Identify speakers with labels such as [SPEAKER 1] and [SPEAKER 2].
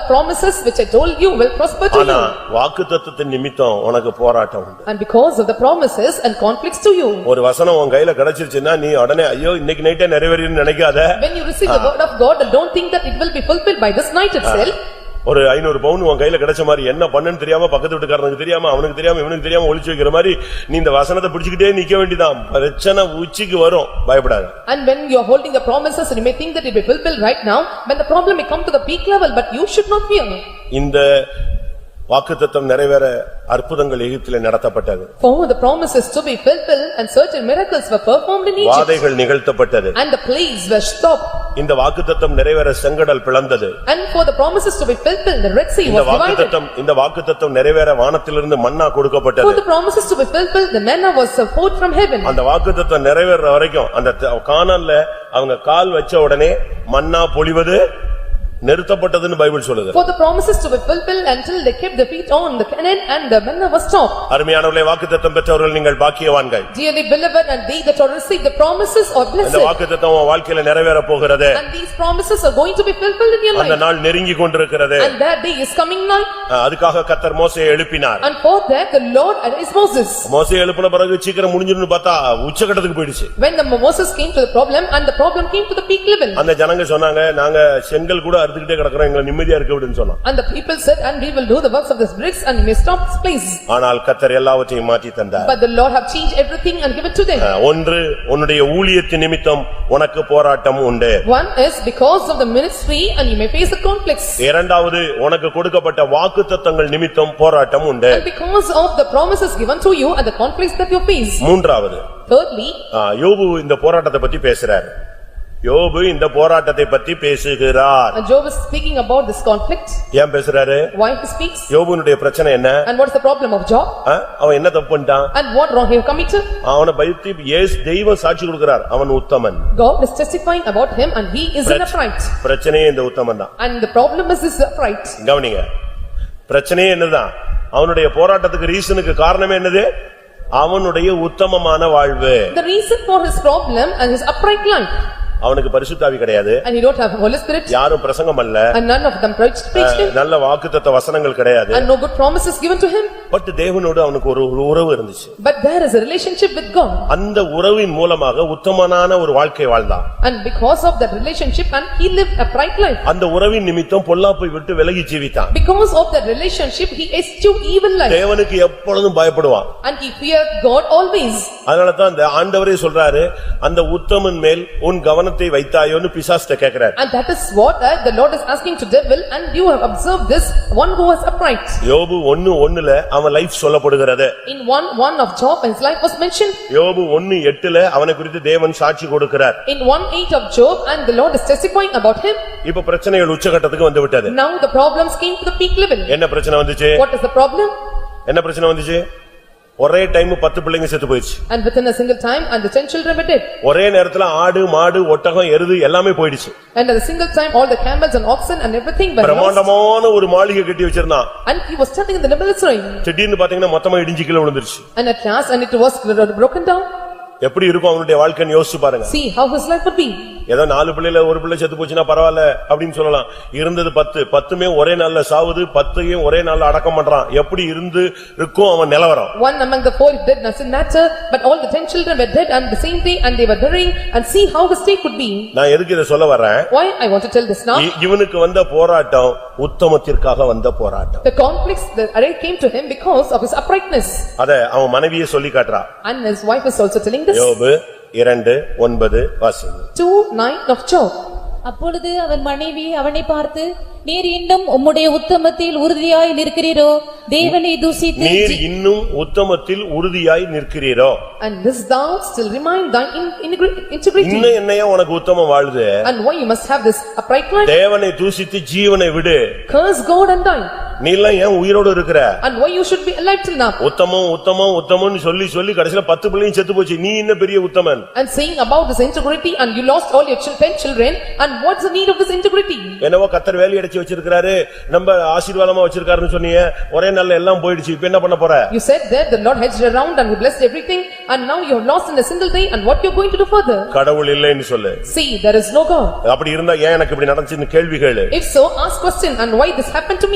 [SPEAKER 1] promises which I told you will prosper to
[SPEAKER 2] ஆனா
[SPEAKER 1] you.
[SPEAKER 2] வாக்குத்தத்தத்தின் நிமித்தம் உனக்கு போராட்டம் உண்டு
[SPEAKER 1] And because of the promises and conflicts to you,
[SPEAKER 2] ஒரு வசனம் உன் கையில கிடைச்சிருச்சுன்னா நீ உடனே ஐயோ இன்னைக்கு நைட்டே நிறைவேறின்னு நினைக்காத
[SPEAKER 1] when you receive the word of God, don't think that it will be fulfilled by this night itself.
[SPEAKER 2] ஒரு ஐநூறு பவுன் உன் கையில கிடைச்ச மாதிரி என்ன பண்ணுன்னு தெரியாம பக்கத்து வீட்டுக்காரனுக்கு தெரியாம அவனுக்கு தெரியாம இவனுக்கு தெரியாம ஒளிச்சு வைக்கிற மாதிரி நீ இந்த வசனத்தை பிடிச்சுக்கிட்டே நிக்க வேண்டியதான் பிரச்சனை உச்சிக்கு வரும் பயப்படாத
[SPEAKER 1] And when you are holding the promises and you may think that it will be fulfilled right now, when the problem may come to the peak level, but you should not fear.
[SPEAKER 2] இந்த வாக்குத்தத்தம் நிறைவேற அற்புதங்கள் எகிப்திலே நடத்தப்பட்டது
[SPEAKER 1] For the promises to be fulfilled and certain miracles were performed in Egypt.
[SPEAKER 2] வாதைகள் நிகழ்த்தப்பட்டது
[SPEAKER 1] And the plagues were stopped.
[SPEAKER 2] இந்த வாக்குத்தத்தம் நிறைவேற செங்கடல் பிளந்தது
[SPEAKER 1] And for the promises to be fulfilled, the Red Sea
[SPEAKER 2] இந்த
[SPEAKER 1] was divided.
[SPEAKER 2] வாக்குத்தத்தம் இந்த வாக்குத்தத்தம் நிறைவேற வானத்திலிருந்து மன்னா
[SPEAKER 1] For
[SPEAKER 2] கொடுக்கப்பட்டது
[SPEAKER 1] the promises to be fulfilled, the manna was poured from heaven.
[SPEAKER 2] அந்த வாக்குத்தத்தம் நிறைவேற வரைக்கும் அந்த த- கானான்ல அவங்க கால் வச்ச உடனே மன்னா பொழிவது நிறுத்தப்பட்டதுன்னு பைபிள் சொல்லுது
[SPEAKER 1] For the promises to be fulfilled until they kept their feet on the cannon and the manna was stopped.
[SPEAKER 2] அருமையானவர்களே வாக்குத்தத்தம் பெற்றவர்கள் நீங்கள் பாக்கியவான்கள்
[SPEAKER 1] Dearly beloved, and they that are received the promises are
[SPEAKER 2] இந்த
[SPEAKER 1] blessed.
[SPEAKER 2] வாக்குத்தத்தம் உன் வாழ்க்கையில நிறைவேற போகிறது
[SPEAKER 1] And these promises are going to be fulfilled in your
[SPEAKER 2] அந்த
[SPEAKER 1] life.
[SPEAKER 2] நாள் நெருங்கி கொண்டிருக்கிறது
[SPEAKER 1] And that day is coming now.
[SPEAKER 2] அஹ் அதுக்காக கத்தர் மோசையை எழுப்பினார்
[SPEAKER 1] And for that, the Lord is Moses.
[SPEAKER 2] மோசையை எழுப்பின பிறகு சீக்கிரம் முடிஞ்சிருன்னு பார்த்தா உச்சகட்டத்துக்கு போயிடுச்சு
[SPEAKER 1] When the Moses came to the problem, and the problem came to the peak level.
[SPEAKER 2] அந்த ஜனங்க சொன்னாங்க நாங்க செங்கல் கூட அறுத்துக்கிட்டே கிடக்குறோம் எங்களை நிம்மதியா இருக்க விடுன்னு சொன்னோம்
[SPEAKER 1] And the people said, "And we will do the works of this bricks and we may stop this place."
[SPEAKER 2] ஆனால் கத்தர் எல்லாவற்றையும் மாற்றி தந்தார்
[SPEAKER 1] But the Lord have changed everything and given to them.
[SPEAKER 2] அஹ் ஒன்று உன்னுடைய ஊழியத்தின் நிமித்தம் உனக்கு போராட்டம் உண்டு
[SPEAKER 1] One is because of the ministry and you may face the conflicts.
[SPEAKER 2] இரண்டாவது உனக்கு கொடுக்கப்பட்ட வாக்குத்தத்தங்கள் நிமித்தம் போராட்டம் உண்டு
[SPEAKER 1] And because of the promises given to you and the conflicts that you face.
[SPEAKER 2] மூன்றாவது
[SPEAKER 1] Thirdly,
[SPEAKER 2] ஆ, யோபு இந்த போராட்டத்தை பத்தி பேசுறாரு யோபு இந்த போராட்டத்தை பத்தி பேசுகிறார்
[SPEAKER 1] and Job is speaking about this conflict,
[SPEAKER 2] ஏன் பேசுறாரு
[SPEAKER 1] why he speaks
[SPEAKER 2] யோபுனுடைய பிரச்சனை என்ன
[SPEAKER 1] and what's the problem of Job
[SPEAKER 2] ஆ, அவன் என்ன தப்பு பண்ணிட்டான்
[SPEAKER 1] and what wrong he have committed.
[SPEAKER 2] அவனை பயத்தி ஏஸ் தெய்வம் சாட்சி கொடுக்கிறார் அவன் உத்தமன்
[SPEAKER 1] God is testifying about him and he is in upright.
[SPEAKER 2] பிரச்சனையே இந்த உத்தமன் தான்
[SPEAKER 1] And the problem is his upright.
[SPEAKER 2] கவனிங்க பிரச்சனையே என்னதான் அவனுடைய போராட்டத்துக்கு ரீசனுக்கு காரணமே என்னது அவனுடைய உத்தமமான வாழ்வு
[SPEAKER 1] The reason for his problem and his upright life
[SPEAKER 2] அவனுக்கு பரிசுத்தாவி கிடையாது
[SPEAKER 1] and he don't have Holy Spirit
[SPEAKER 2] யாரும் பிரசங்கம் அல்ல
[SPEAKER 1] and none of them preached preached him.
[SPEAKER 2] நல்ல வாக்குத்தத்த வசனங்கள் கிடையாது
[SPEAKER 1] and no good promises given to him,
[SPEAKER 2] but தேவனோடு அவனுக்கு ஒரு ஒரு உறவு இருந்துச்சு
[SPEAKER 1] but there is a relationship with God.
[SPEAKER 2] அந்த உறவின் மூலமாக உத்தமனான ஒரு வாழ்க்கை வாழ்ந்தான்
[SPEAKER 1] And because of that relationship, and he lived a bright life.
[SPEAKER 2] அந்த உறவின் நிமித்தம் பொல்லாப்பை விட்டு விலகி ஜீவித்தான்
[SPEAKER 1] Because of that relationship, he eschewed evil life,
[SPEAKER 2] தேவனுக்கு எப்பொழுதும் பயப்படுவான்
[SPEAKER 1] and he feared God always.
[SPEAKER 2] அதனால தான் அந்த ஆண்டவரே சொல்றாரு அந்த உத்தமன் மேல் உன் கவனத்தை வைத்தாயோன்னு பிசாஸ்ட கேக்குறாரு
[SPEAKER 1] And that is what uh, the Lord is asking to devil, and you have observed this, one who was upright.
[SPEAKER 2] யோபு ஒன்னு ஒண்ணுல அவன் லைஃப் சொல்லப்படுகிறது
[SPEAKER 1] In one, one of Job, his life was mentioned.
[SPEAKER 2] யோபு ஒன்னு எட்டுல அவனை குறித்து தேவன் சாட்சி கொடுக்கிறார்
[SPEAKER 1] In one eight of Job, and the Lord is testifying about him.
[SPEAKER 2] இப்ப பிரச்சனைகள் உச்சகட்டத்துக்கு வந்து விட்டது
[SPEAKER 1] Now the problems came to the peak level.
[SPEAKER 2] என்ன பிரச்சனை வந்துச்சு
[SPEAKER 1] What is the problem?
[SPEAKER 2] என்ன பிரச்சனை வந்துச்சு ஒரே டைம் பத்து பிள்ளைங்க செத்து போயிடுச்சு
[SPEAKER 1] And within a single time, and the ten children were dead.
[SPEAKER 2] ஒரே நேரத்துல ஆடு மாடு ஒட்டகம் எருது எல்லாமே போயிடுச்சு
[SPEAKER 1] And at a single time, all the camels and oxen and everything were lost.
[SPEAKER 2] பிரமாண்டமான ஒரு மாளிகை கட்டி வச்சிருந்தான்
[SPEAKER 1] And he was standing in the military.
[SPEAKER 2] திடீர்னு பாத்தீங்கன்னா மொத்தமா இடிஞ்சு கீழே விழுந்துருச்சு
[SPEAKER 1] And at last, and it was broken down.
[SPEAKER 2] எப்படி இருக்கும் அவனுடைய வாழ்க்கைன்னு யோசிச்சு பாருங்க
[SPEAKER 1] See how his life would be.
[SPEAKER 2] ஏதோ நாலு பிள்ளையில ஒரு பிள்ளை செத்து போச்சுன்னா பரவாயில்ல அப்படின்னு சொல்லலாம் இருந்தது பத்து பத்துமே ஒரே நாள்ல சாவுது பத்தையும் ஒரே நாள்ல அடக்கம் பண்றான் எப்படி இருந்து இருக்கும் அவன் நிலவரம்
[SPEAKER 1] One among the four dead doesn't matter, but all the ten children were dead on the same day and they were burying and see how his state would be.
[SPEAKER 2] நான் எதுக்கு இதை சொல்ல வர்றேன்
[SPEAKER 1] Why I want to tell this now?
[SPEAKER 2] இ- இவனுக்கு வந்த போராட்டம் உத்தமத்திற்காக வந்த போராட்tom
[SPEAKER 1] The conflicts that array came to him because of his uprightness.
[SPEAKER 2] அத அவன் மனைவியே சொல்லி காட்டுறான்
[SPEAKER 1] And his wife is also telling this.
[SPEAKER 2] யோபு இரண்டு ஒன்பது வாசிங்க
[SPEAKER 1] Two nine of Job.
[SPEAKER 3] அப்பொழுது அவன் மனைவி அவனை பார்த்து நீர் இன்னும் உம்முடைய உத்தமத்தில் உறுதியாய் நிற்கிறீரோ தேவனை தூசித்து
[SPEAKER 2] நீர்
[SPEAKER 3] ஜீ-
[SPEAKER 2] இன்னும் உத்தமத்தில் உறுதியாய் நிற்கிறீரோ
[SPEAKER 1] And this thou still remind thine in- integri- integrity.
[SPEAKER 2] இன்னும் என்னையா உனக்கு உத்தமம் வாழுது
[SPEAKER 1] And why you must have this upright life?
[SPEAKER 2] தேவனை தூசித்து ஜீவனை விடு
[SPEAKER 1] Curse God and die.
[SPEAKER 2] நீ எல்லாம் ஏன் உயிரோட இருக்கிற
[SPEAKER 1] And why you should be alive till now?
[SPEAKER 2] உத்தமம் உத்தமம் உத்தமம்னு சொல்லி சொல்லி கடைசில பத்து பிள்ளையும் செத்து போச்சு நீ என்ன பெரிய உத்தமன்
[SPEAKER 1] And saying about this integrity and you lost all your chil- ten children and what's the need of this integrity?
[SPEAKER 2] என்னவோ கத்தர் வேலை அடைச்சு வச்சிருக்கிறாரு நம்ம ஆசீர்வாதமா வச்சிருக்காருன்னு சொன்னீங்க ஒரே நாள்ல எல்லாம் போயிடுச்சு இப்ப என்ன பண்ண போற
[SPEAKER 1] You said that the Lord hedged around and he blessed everything and now you have lost in a single day and what you're going to do further?
[SPEAKER 2] கடவுள் இல்லைன்னு சொல்லு
[SPEAKER 1] See, there is no God.
[SPEAKER 2] அப்படி இருந்தா ஏன் எனக்கு இப்படி நடந்துச்சுன்னு கேள்வி கேளு
[SPEAKER 1] If so, ask question and why this happened to me?